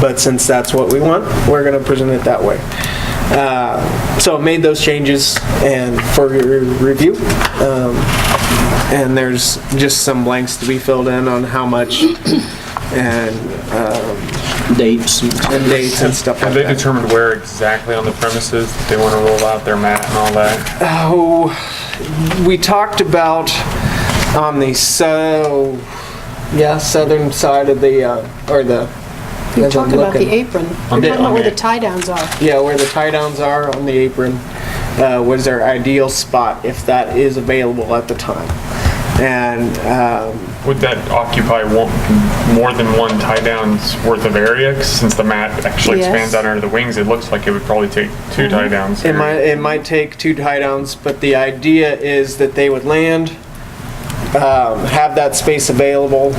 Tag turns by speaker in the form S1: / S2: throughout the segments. S1: But since that's what we want, we're going to present it that way. Uh, So I made those changes and for your review. Um, And there's just some blanks to be filled in on how much and, um,
S2: dates.
S1: and dates and stuff like
S3: Have they
S1: that.
S3: determined where exactly on the premises they want to roll out their mat and all that?
S1: Oh, we talked about on the so, yeah, southern side of the, uh, or the.
S4: You're
S1: as I'm
S4: talking about the
S1: looking.
S4: apron.
S3: On
S4: You're
S3: the-
S4: talking about
S3: on
S4: where the
S3: the-
S4: tie downs are.
S1: Yeah, where the tie downs are on the apron uh, was their ideal spot if that is available at the time. And um,
S3: Would that occupy one, more than one tie downs worth of area? 'Cause Since the mat actually
S4: Yes.
S3: expands out under the wings, it looks like it would probably take two tie downs.
S1: it
S3: here.
S1: might it might take two tie downs, but the idea is that they would land, um, have that space available,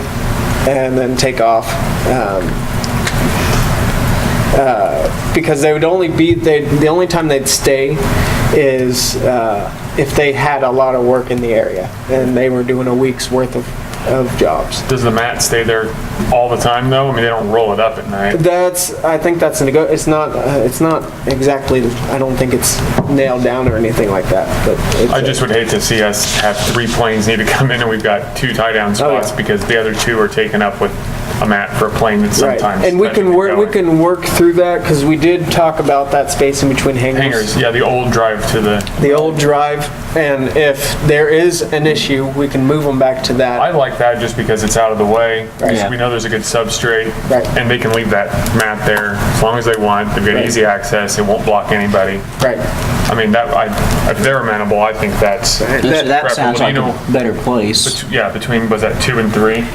S1: and then take off. Um, uh, because they would only be, they, the only time they'd stay is uh, if they had a lot of work in the area and they were doing a week's worth of, of jobs.
S3: Does the mat stay there all the time though? I mean, they don't roll it up at night.
S1: That's, I think that's, a nego- it's not, uh, it's not exactly, I don't think it's nailed down or anything like that, but. it's-
S3: I just would hate to see us have three planes need to come in and we've got two tie down
S1: Oh, yeah.
S3: spots because the other two are taken up with a mat for a plane that
S1: Right,
S3: sometimes.
S1: and we
S3: doesn't
S1: can
S3: get
S1: work, we
S3: going.
S1: can work through that because we did talk about that space in between hangars.
S3: Hangers, yeah, the old drive to the,
S1: The old drive, and if there is an issue, we can move them back to that.
S3: I like that just because it's out of the way.
S2: Yeah.
S3: We know there's a good substrate.
S1: Right.
S3: And they can leave that mat there as long as they want. They've got
S1: Right.
S3: easy access. It won't block anybody.
S1: Right.
S3: I mean, that, I, if they're amenable, I think that's,
S2: That, that
S3: Right,
S2: sounds
S3: well,
S2: like
S3: you know-
S2: a better place.
S3: bet- yeah, between, was that two and three?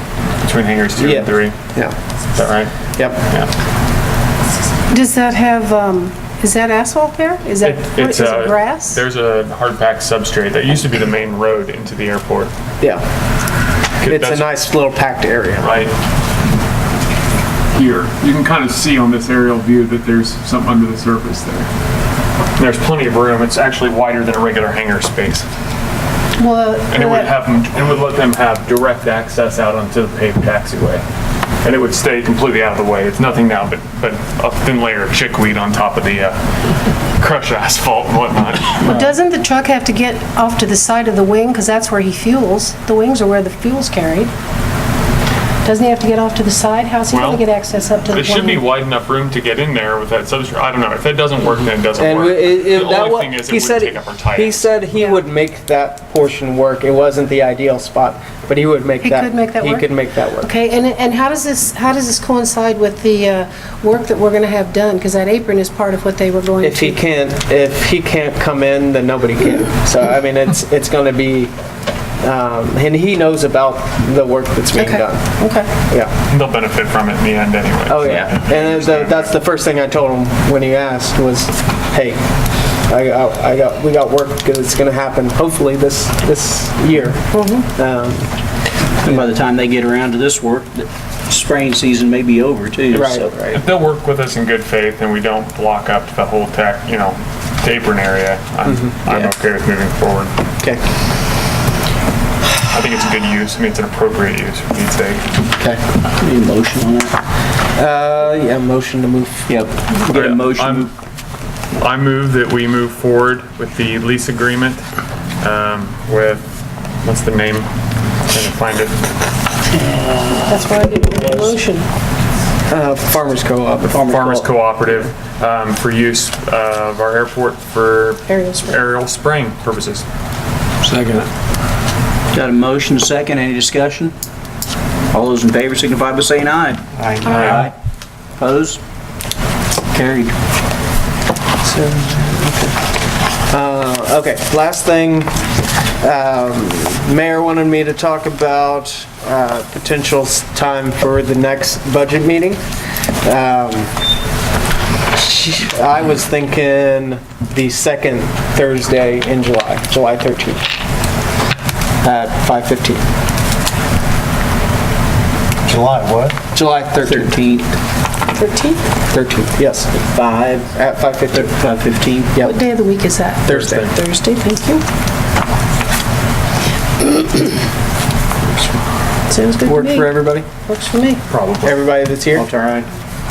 S3: Between hangers two
S1: Yeah.
S3: and three?
S1: Yeah,
S3: Is that right?
S1: yep.
S3: Yeah.
S4: Does that have, um, is that asphalt there? Is that,
S3: It-
S4: what is
S3: It's uh,
S4: it
S3: a
S4: grass?
S3: There's a hard pack substrate that used to be the main road into the airport.
S1: Yeah, it's a
S3: That's
S1: nice little packed area.
S3: Right here. You can kind of see on this aerial view that there's something under the surface there. There's plenty of room. It's actually wider than a regular hangar space.
S4: Well,
S3: And it would
S4: uh,
S3: have them, and would let them have direct access out onto the paved taxiway. And it would stay completely out of the way. It's nothing now but, but a thin layer of chickweed on top of the, uh, crushed asphalt and whatnot.
S4: well, doesn't the truck have to get off to the side of the wing, because that's where he fuels? The wings are where the fuel's carried. Doesn't he have to get off to the side? How's he
S3: Well,
S4: going to get access up to the
S3: It should be
S4: plane?
S3: wide enough room to get in there with that substrate. I don't know. If it doesn't work, then it doesn't
S1: And we-
S3: work.
S1: it-
S3: The
S1: it- that
S3: only
S1: wa-
S3: thing is
S1: he
S3: it would
S1: said-
S3: take up our tie
S1: He
S3: ends.
S1: said he would make that portion work. It wasn't the ideal spot, but he would make
S4: He
S1: that.
S4: could make that work?
S1: He could make that work.
S4: Okay, and, and how does this, how does this coincide with the uh, work that we're going to have done? Because that apron is part of what they were going to...
S1: If he can't, if he can't come in, then nobody can. So, I mean, it's, it's gonna be, um, and he knows about the work that's being
S4: Okay,
S1: done.
S4: okay.
S1: Yeah,
S3: They'll benefit from it in the end anyway.
S1: oh, yeah. And the- that's the first thing I told him when he asked was, hey, I, got- I got, we got work that's gonna happen hopefully this, this year.
S4: Mm-hmm.
S1: Um,
S2: And by the time they get around to this work, the spraying season may be over too.
S1: Right,
S2: so-
S1: right.
S3: If they'll work with us in good faith and we don't block up the whole tech, you know, apron area, I'm,
S2: Mm-hmm.
S3: I'm okay with moving forward.
S1: Okay.
S3: I think it's a good use. I mean, it's an appropriate use for Pete's sake.
S1: Okay.
S2: Need a motion on that?
S1: Uh, yeah, motion to move.
S2: Yep. Get a motion.
S3: I'm- I move that we move forward with the lease agreement, um, with, what's the name? Trying to find it.
S4: That's why I did the motion.
S1: Uh, Farmers Co-op.
S3: Farmers Cooperative, um, for use of our airport for
S4: Aerial spray.
S3: aerial spraying purposes.
S2: Got a motion, second, any discussion? All those in favor signify by saying aye.
S3: Aye.
S2: Opposed? Carried.
S1: Uh, okay, last thing, um, Mayor wanted me to talk about, uh, potential s- time for the next budget meeting. Um, she- I was thinking the second Thursday in July, July 13th, at 5:15.
S5: July what?
S1: July 13th,
S2: 13th,
S4: 13th?
S1: 13th, yes,
S2: 5,
S1: at 5:15,
S2: 5:15.
S1: yep.
S4: What day of the week is that?
S1: Thursday.
S4: Thursday, thank you. Sounds good to
S1: Work
S4: me.
S1: for everybody?
S4: Works for me.
S3: Probably.
S1: Everybody that's here?
S2: All right.